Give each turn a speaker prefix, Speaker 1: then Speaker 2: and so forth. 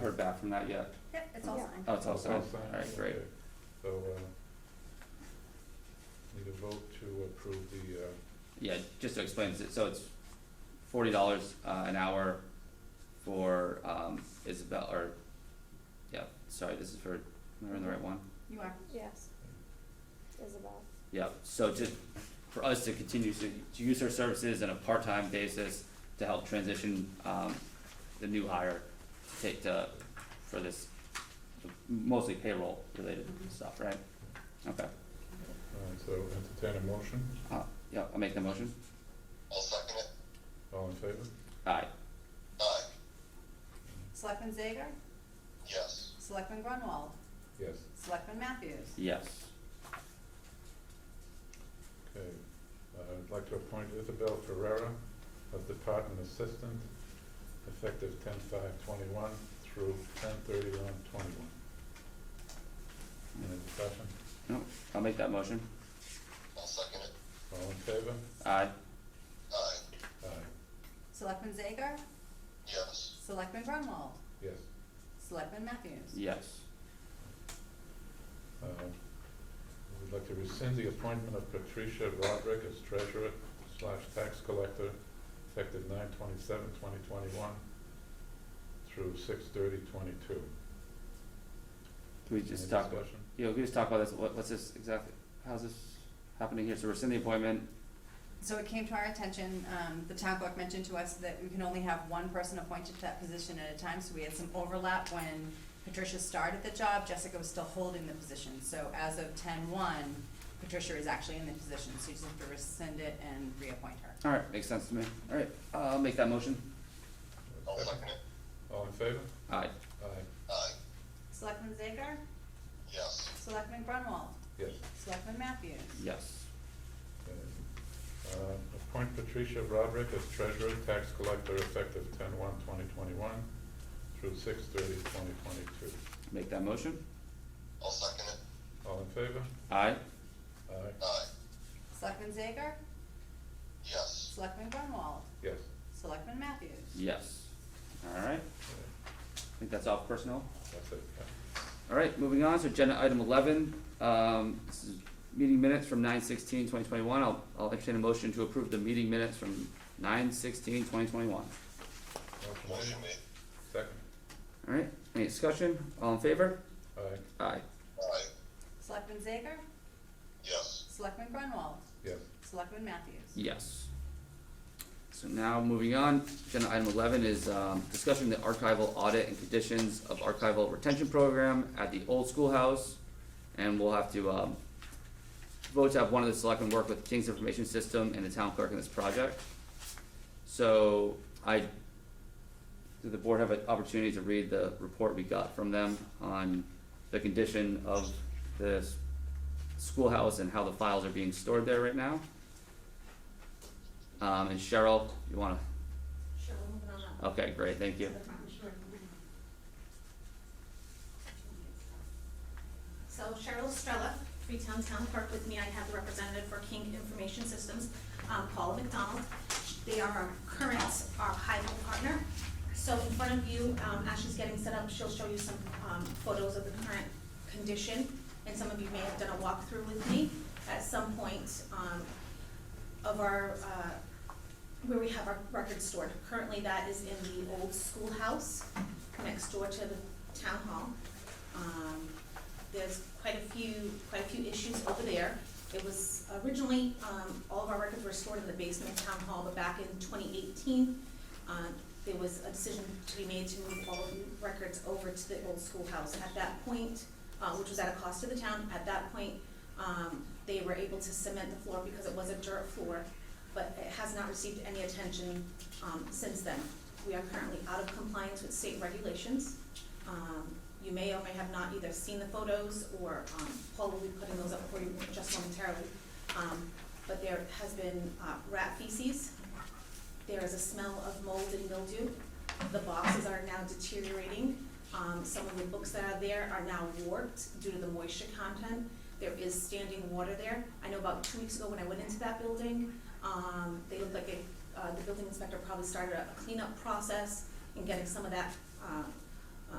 Speaker 1: heard back from that yet?
Speaker 2: Yeah, it's all
Speaker 3: Yeah.
Speaker 2: signed.
Speaker 1: Oh, it's all signed?
Speaker 4: signed.
Speaker 1: All right, great.
Speaker 4: Okay. So, uh, need a vote to approve the, uh,
Speaker 1: Yeah, just to explain, this, so it's forty dollars, uh, an hour for, um, Isabel, or, yeah, sorry, this is for, am I on the right one?
Speaker 2: You are.
Speaker 3: Yes. Isabel.
Speaker 1: Yeah, so just for us to continue to, to use her services on a part-time basis to help transition, um, the new hire to take to, for this mostly payroll related
Speaker 2: Mhm.
Speaker 1: stuff, right? Okay,
Speaker 4: all right, uh, so entertain a motion,
Speaker 1: uh, yeah, I'll make the motion.
Speaker 5: I'll second it.
Speaker 4: all in favor?
Speaker 1: Aye,
Speaker 5: Aye,
Speaker 2: Selectman Zager?
Speaker 5: yes.
Speaker 2: Selectman Grunwald?
Speaker 4: Yes,
Speaker 2: Selectman Matthews?
Speaker 1: yes,
Speaker 4: okay. Uh, I'd like to appoint Isabel Ferrera as Department Assistant, effective ten five twenty-one through ten thirty-one twenty-one. Any discussion?
Speaker 1: I'll make that motion.
Speaker 5: I'll second it.
Speaker 4: All in favor?
Speaker 1: Aye,
Speaker 5: Aye,
Speaker 4: Aye,
Speaker 2: Selectman Zager?
Speaker 5: yes.
Speaker 2: Selectman Grunwald?
Speaker 4: yes.
Speaker 2: Selectman Matthews?
Speaker 1: yes,
Speaker 4: Uh, We'd like to rescind the appointment of Patricia Roderick as treasurer slash tax collector, effective nine twenty-seven, twenty twenty-one through six thirty, twenty-two.
Speaker 1: can we just talk about? Yeah, we can just talk about this, what, what's this exactly, how's this happening here, so we're rescind the appointment,
Speaker 2: So it came to our attention, um, the town clerk mentioned to us that we can only have one person appointed to that position at a time, so we had some overlap when Patricia started the job, Jessica was still holding the position, so as of ten-one, Patricia is actually in the position, so you just have to rescind it and reappoint her.
Speaker 1: alright, makes sense to me, alright, I'll make that motion,
Speaker 5: I'll second it.
Speaker 4: All in favor?
Speaker 1: aye,
Speaker 4: Aye,
Speaker 5: Aye,
Speaker 2: Selectman Zager?
Speaker 5: yes.
Speaker 2: Selectman Grunwald?
Speaker 4: yes.
Speaker 2: Selectman Matthews?
Speaker 1: yes,
Speaker 4: Okay. Uh, Appoint Patricia Roderick as treasurer, tax collector, effective ten one, twenty twenty-one through six thirty, twenty twenty-two.
Speaker 1: make that motion,
Speaker 5: I'll second it.
Speaker 4: All in favor?
Speaker 1: aye,
Speaker 4: Aye,
Speaker 5: Aye,
Speaker 2: Selectman Zager?
Speaker 5: yes.
Speaker 2: Selectman Grunwald?
Speaker 4: yes.
Speaker 2: Selectman Matthews?
Speaker 1: yes, alright,
Speaker 4: Okay,
Speaker 1: I think that's all for personnel.
Speaker 4: That's it, yeah.
Speaker 1: All right, moving on, so agenda item eleven, um, this is meeting minutes from nine sixteen twenty twenty-one, I'll, I'll entertain a motion to approve the meeting minutes from nine sixteen twenty twenty-one.
Speaker 4: Motion
Speaker 5: Motion
Speaker 4: made.
Speaker 5: made.
Speaker 4: Second.
Speaker 1: All right, any discussion, all in favor?
Speaker 4: Aye,
Speaker 1: Aye,
Speaker 5: Aye,
Speaker 2: Selectman Zager?
Speaker 5: yes.
Speaker 2: Selectman Grunwald?
Speaker 4: yes.
Speaker 2: Selectman Matthews?
Speaker 1: yes. So now, moving on, agenda item eleven is, um, discussing the archival audit and conditions of archival retention program at the old schoolhouse. And we'll have to, um, vote to have one of the selectmen work with King's Information System and the town clerk in this project. So I, did the board have an opportunity to read the report we got from them on the condition of this schoolhouse and how the files are being stored there right now? Um, and Cheryl, you wanna,
Speaker 6: Sure, we're moving on up.
Speaker 1: okay, great, thank you.
Speaker 6: To the front, sure. So Cheryl Estrella, Freetown Town Clerk with me, I have the representative for King Information Systems, um, Paula McDonald. They are our current, our highway partner. So in front of you, um, as she's getting set up, she'll show you some, um, photos of the current condition. And some of you may have done a walkthrough with me at some point, um, of our, uh, where we have our records stored. Currently, that is in the old schoolhouse next door to the town hall. Um, there's quite a few, quite a few issues over there. It was originally, um, all of our records were stored in the basement of town hall, but back in twenty eighteen, uh, there was a decision to be made to move all of the records over to the old schoolhouse. At that point, uh, which was at a cost to the town, at that point, um, they were able to cement the floor because it was a dirt floor, but it has not received any attention, um, since then. We are currently out of compliance with state regulations. Um, you may or may have not either seen the photos or, um, Paul will be putting those up for you just momentarily. Um, but there has been, uh, rat feces. There is a smell of mold and mildew. The boxes are now deteriorating. Um, some of the books that are there are now warped due to the moisture content. There is standing water there. I know about two weeks ago when I went into that building, um, they looked like it, uh, the building inspector probably started a cleanup process and getting some of that, uh,